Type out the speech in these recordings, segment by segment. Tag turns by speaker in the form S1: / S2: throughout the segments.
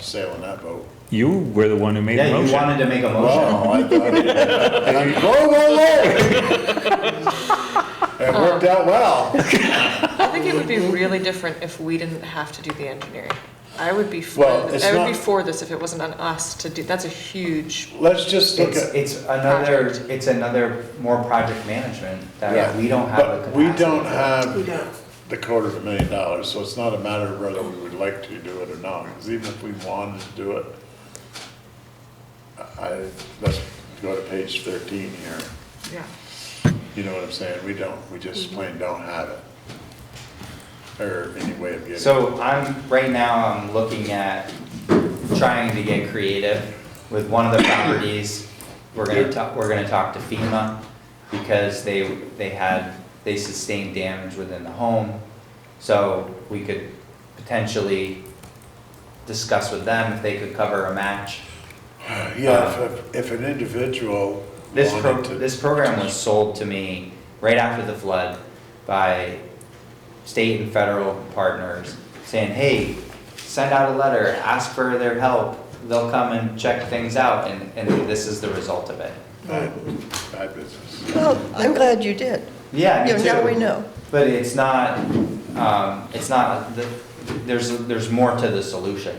S1: sail in that boat.
S2: You were the one who made the
S3: Yeah, you
S2: motion.
S3: wanted to make a motion.
S1: Wow, I thought, and I'm going along. It worked out well.
S4: I think it would be really different if we didn't have to do the engineering. I would be for,
S1: Well, it's
S4: I would be
S1: not-
S4: for this if it wasn't on us to do, that's a huge,
S1: Let's just look
S3: It's,
S1: at.
S3: it's another,
S4: Project.
S3: it's another more project management
S1: Yeah.
S3: that we don't have a
S1: But we
S3: capacity
S1: don't
S3: for.
S5: We
S1: have
S5: don't.
S1: the quarter of a million dollars, so it's not a matter of whether we would like to do it or not, because even if we wanted to do it, I, let's go to page thirteen here,
S4: yeah.
S1: you know what I'm saying, we don't, we just
S5: Mm-hmm.
S1: plain don't have it. Or any way of getting.
S3: So I'm, right now, I'm looking at trying to get creative with one of the properties. We're gonna talk, we're gonna talk to FEMA because they, they had, they sustained damage within the home. So we could potentially discuss with them if they could cover a match.
S1: Yeah, if, if an individual
S3: Uh, This pro,
S1: wanted to.
S3: this program was sold to me right after the flood by state and federal partners saying, hey, send out a letter, ask for their help. They'll come and check things out and, and this is the result of it.
S1: Bad bad business.
S5: Well, I'm glad you did.
S3: Yeah, me
S5: You know, Now
S3: too.
S5: we know.
S3: But it's not, um, it's not, the- there's, there's more to the solution.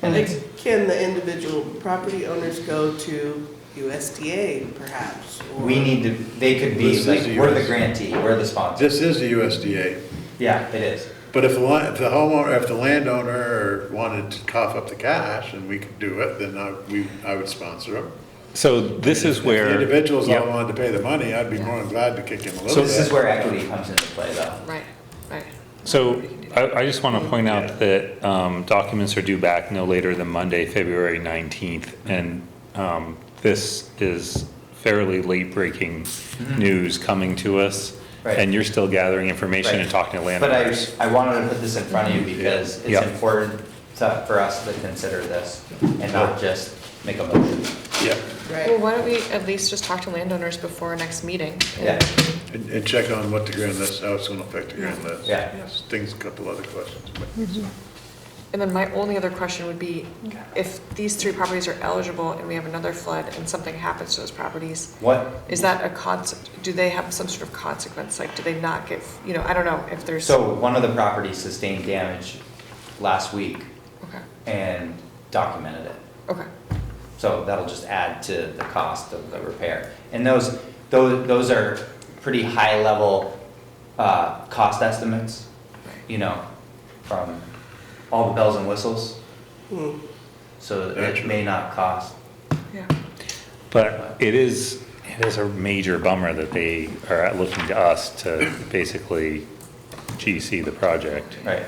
S3: And it's,
S5: Can the individual property owners go to USDA perhaps? or-
S3: we need to, they could be
S1: This is
S3: like, we're the
S1: yours.
S3: grantee, we're the sponsor.
S1: This is the USDA,
S3: Yeah, it is.
S1: but if the, li- if the homeowner, if the landowner wanted to cough up the cash and we could do it, then I, we, I would sponsor them.
S2: So this is where.
S1: If the individuals all
S2: Yep.
S1: wanted to pay the money, I'd be more than glad to kick him a little
S3: This is
S1: bit.
S3: where equity comes into play though.
S4: Right, right.
S2: So I, I just want to point out that um, documents are due back no later than Monday, February 19th. And um, this is fairly late-breaking news coming to us.
S3: Mm-hmm. Right.
S2: And you're still gathering information and
S3: Right.
S2: talking to
S3: But I,
S2: landowners.
S3: I wanted to put this in front of you because
S2: Yeah.
S3: it's important to, for us to consider this and not just make a motion.
S1: Yeah,
S4: Well,
S5: Right.
S4: why don't we at least just talk to landowners before our next meeting? and-
S3: Yeah,
S1: and, and check on what the grand list, how it's gonna affect the grand list.
S3: Yeah.
S1: Yes, Things, a couple other questions. but-
S4: And then my only other question would be, if these three properties are eligible and we have another flood and something happens to those properties,
S3: what,
S4: is that a concept, do they have some sort of consequence? Like, do they not get, you know, I don't know if there's.
S3: so one of the properties sustained damage last week
S4: Okay,
S3: and documented it.
S4: okay,
S3: So that'll just add to the cost of the repair. And those, those, those are pretty high-level, uh, cost estimates, you know, from all the bells and whistles.
S5: Hmm.
S3: So it may not cost
S4: yeah.
S2: But it is, it is a major bummer that they are looking to us to basically GC the project
S3: Right,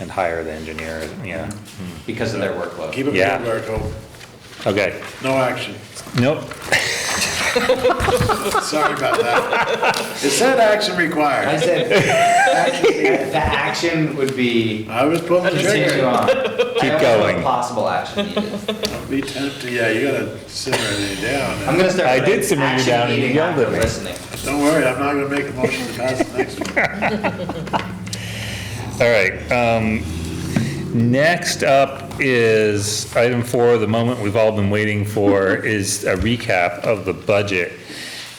S2: and hire the engineer, yeah. Mm.
S3: because of their workload.
S1: Keep it
S2: Yeah.
S1: moving, Marco,
S3: Mm-hmm.
S2: Okay,
S1: no action,
S2: nope,
S1: sorry about that. It said action
S3: I
S1: required,
S3: said, the action would be,
S1: I was pulling the
S3: continue
S1: trigger.
S3: on. I don't know
S2: going.
S3: if Possible action needed.
S1: Be tempted, yeah, you gotta simmer it down.
S3: I'm gonna start.
S2: I
S3: putting
S2: did simmer you
S3: action
S2: down and you
S3: meeting
S2: yelled at
S3: after
S2: me.
S3: Listening.
S1: Don't worry, I'm not gonna make a motion to pass the next one.
S2: all right. um, Next up is item four, the moment we've all been waiting for, is a recap of the budget.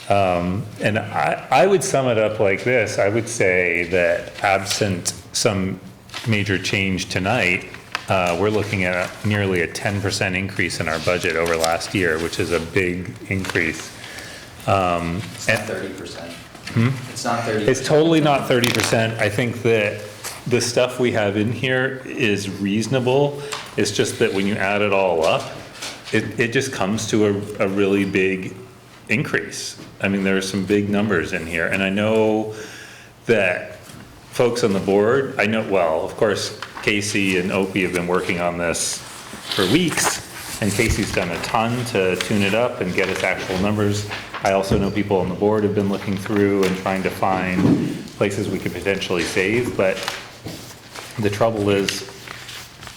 S2: Um, And I, I would sum it up like this, I would say that absent some major change tonight, uh, we're looking at a- nearly a 10% increase in our budget over last year, which is a big increase. Um,
S3: It's
S2: and- Hmm?
S3: not thirty percent. It's not thirty.
S2: It's totally not thirty percent. I think that the stuff we have in here is reasonable. It's just that when you add it all up, it, it just comes to a, a really big increase. I mean, there are some big numbers in here, and I know that folks on the board, I know, well, of course, Casey and Opie have been working on this for weeks, and Casey's done a ton to tune it up and get us actual numbers. I also know people on the board have been looking through and trying to find places we could potentially save, but the trouble is,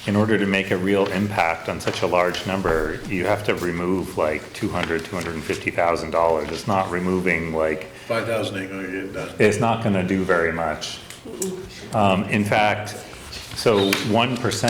S2: in order to make a real impact on such a large number, you have to remove like 200, 250,000 dollars. It's not removing like
S1: Five thousand ain't gonna get it done.
S2: it's not gonna do very much. Um, in fact, so one percent